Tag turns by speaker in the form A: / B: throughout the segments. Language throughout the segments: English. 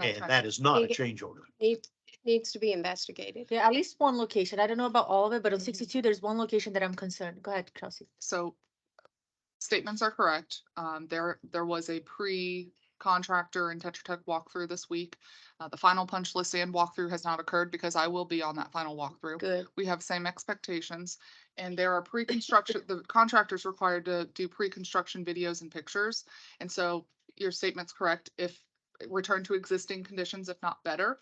A: and that is not a change order.
B: Need- It needs to be investigated.
C: Yeah, at least one location. I don't know about all of it, but on
B: Mm-hmm.
C: sixty-two, there's one location that I'm concerned. Go ahead, Chelsea.
D: so statements are correct. Um, there, there was a pre-contractor and Tetra Tech walkthrough this week. Uh, the final punch list and walkthrough has not occurred because I will be on that final walkthrough.
C: Good.
D: We have same expectations and there are pre-construction, the contractor's required to do pre-construction videos and pictures. And so your statement's correct if eh, return to existing conditions, if not better.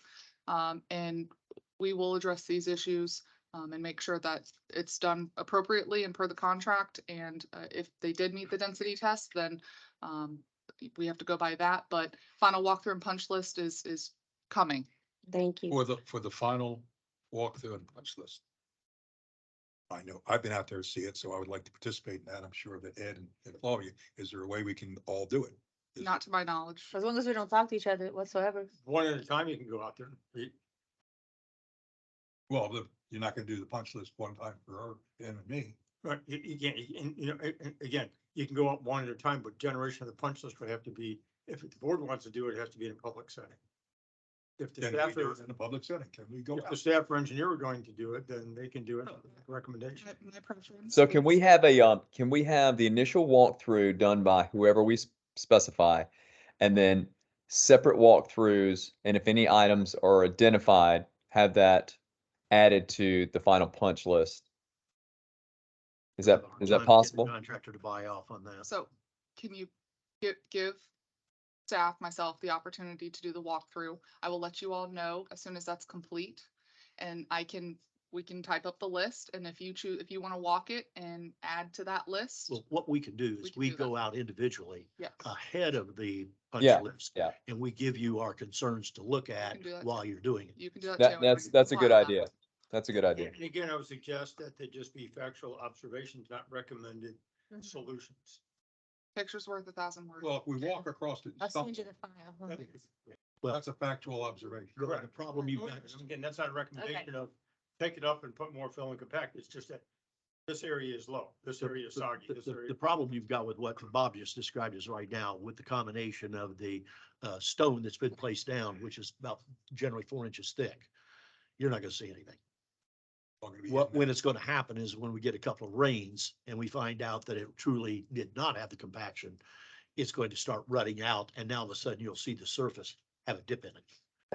D: Um, and we will address these issues um, and make sure that it's done appropriately and per the contract. And uh, if they did meet the density test, then um, we have to go by that. But final walkthrough and punch list is, is coming.
B: Thank you.
E: For the, for the final walkthrough and punch list. I know, I've been out there to see it, so I would like to participate in that. I'm sure that Ed and- and Flavia, is there a way we can all do it? Is-
D: Not to my knowledge.
C: As long as we don't talk to each other whatsoever.
A: One at a time, you can go out there.
E: Well, the- you're not gonna do the punch list one time for her and me.
A: Right, you, you can't, and, you know, a- a- again, you can go out one at a time, but generation of the punch list would have to be, if the board wants to do it, it has to be in a public setting. If the
E: Can we
A: staff,
E: do it
A: or-
E: in a public setting? Can we go?
A: if the
E: out?
A: staff or engineer are going to do it, then they can do
D: Oh.
A: it, recommendation.
D: My- my preference
F: So can
D: is-
F: we have a, um, can we have the initial walkthrough done by whoever we s- specify? And then separate walkthroughs, and if any items are identified, have that added to the final punch list? Is that, is
A: Time to get
F: that
A: the
F: possible?
A: Contractor to buy off on that.
D: So can you give, give staff, myself, the opportunity to do the walkthrough? I will let you all know as soon as that's complete. And I can, we can type up the list and if you choose, if you want to walk it and add to that list.
A: Well, what we can do
D: We
A: is
D: can
A: we
D: do that.
A: go out individually
D: Yes.
F: uh,
A: ahead of the punch
F: Yeah,
A: list.
F: yeah.
A: And we give you our concerns to look at
D: can do that.
A: while you're doing it.
D: You can do that too.
F: That-
D: and I
F: that's-
D: can
F: that's a good
D: compile that.
F: idea. That's a good idea.
A: And again, I would suggest that they just be factual observations, not recommended
C: Mm-hmm.
A: solutions.
D: Picture's worth a thousand words.
E: Well, if we walk across it,
C: I'll
E: something,
C: send you the file. huh?
E: that- that's a factual observation.
A: Right, the problem you've
E: Okay.
A: got, is, again, that's not a recommendation of, take it up and put more fill and compact, it's just that this area is low, this area is soggy,
G: The-
A: this
G: The,
A: area.
G: the problem you've got with what Bob just described is right now with the combination of the uh, stone that's been placed down, which is about generally four inches thick. You're not gonna see anything.
E: We're gonna be
G: What,
E: hitting
G: when it's gonna happen is when we get a couple of rains and we find out that it truly did not have the compaction, it's going to start rutting out and now all of a sudden you'll see the surface have a dip in it.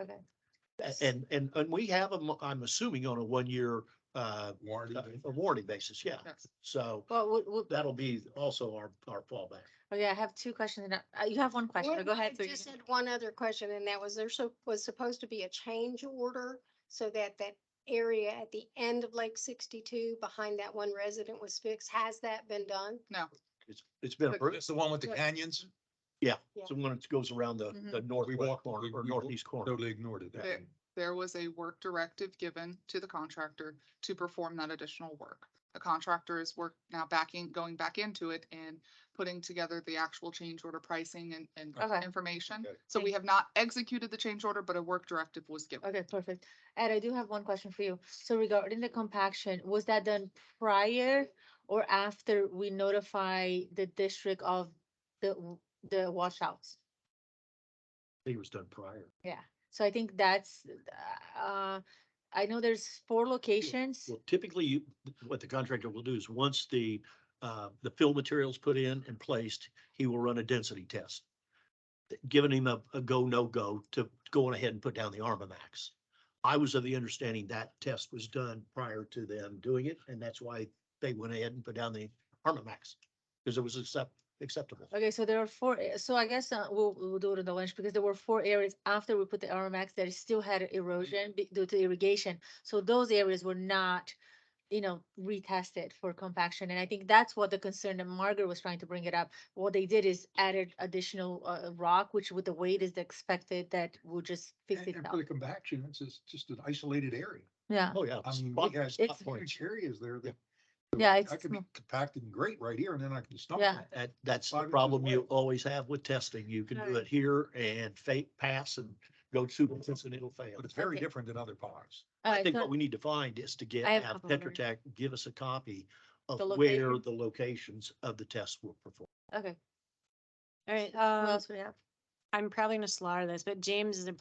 C: Okay.
G: A- And, and, and we have them, I'm assuming on a one-year uh,
E: that warranty.
G: uh, warranty basis, yeah.
D: Yes.
G: So
C: Well, we- we-
G: that'll be also our, our fallback.
C: oh yeah, I have two questions. and I- uh, You have one question. Go ahead.
B: I
C: so you
B: just
C: can-
B: had one other question, and that was there so, was supposed to be a change order so that that area at the end of Lake sixty-two behind that one resident was fixed. Has that been done?
G: It's, it's been approved.
E: It's the one with the canyons,
G: So when it goes around the, the northwest
E: walked-
G: corner
E: we-
G: or
E: we
G: northeast corner.
E: totally ignored it.
D: There- there was a work directive given to the contractor to perform that additional work. The contractor is work now backing, going back into it and putting together the actual change order pricing and, and
C: Okay.
D: information.
E: Okay.
D: So we have not executed the change order, but a work directive was given.
C: Okay, perfect. Ed, I do have one question for you. So regarding the compaction, was that done prior or after we notify the district of the, w- the washouts?
G: I think it was done prior.
C: So I think that's, uh, I know there's four locations.
G: Well, typically, you- what the contractor will do is, once the, uh, the fill material's put in and placed, he will run a density test. Giving him a, a go, no-go to go on ahead and put down the Armamax. I was of the understanding that test was done prior to them doing it, and that's why they went ahead and put down the Armamax. Because it was accept, acceptable.
C: Okay, so there are four, a- so I guess uh, we'll, we'll do it on the lunch because there were four areas after we put the RMX that still
E: Mm-hmm.
C: had erosion be- due to irrigation. So those areas were not, you know, retested for compaction. And I think that's what the concern that Margaret was trying to bring it up. What they did is added additional uh, rock, which with the weight is expected that will just fix
E: And
C: it
E: and
C: out.
E: for the compaction, it's just, just an isolated area.
C: Yeah,
G: Oh, yeah.
E: I mean,
G: Spot-
E: we had
G: spot
C: It's-
G: points.
E: huge areas there that.
C: yeah, it's
E: I could be
C: small.
E: compacted and great right here and then I can stump.
C: Yeah.
G: That, that's
E: Five
G: the
E: inches
G: problem you
E: away.
G: always have with testing. You can do
C: Right.
G: it here and fake pass and go super intense and it'll fail.
E: But it's very
C: Okay.
E: different than other ponds.
C: All
G: I
C: right,
G: think
C: so-
G: what we need to find is to get,
C: I have a
G: have
C: couple of
G: Tetra Tech give us a copy of
C: The
G: where
C: location.
G: the locations of the tests were performed.
C: okay,
H: All right,
C: what
H: um,
C: else we have?
H: I'm probably gonna slaughter this, but James is a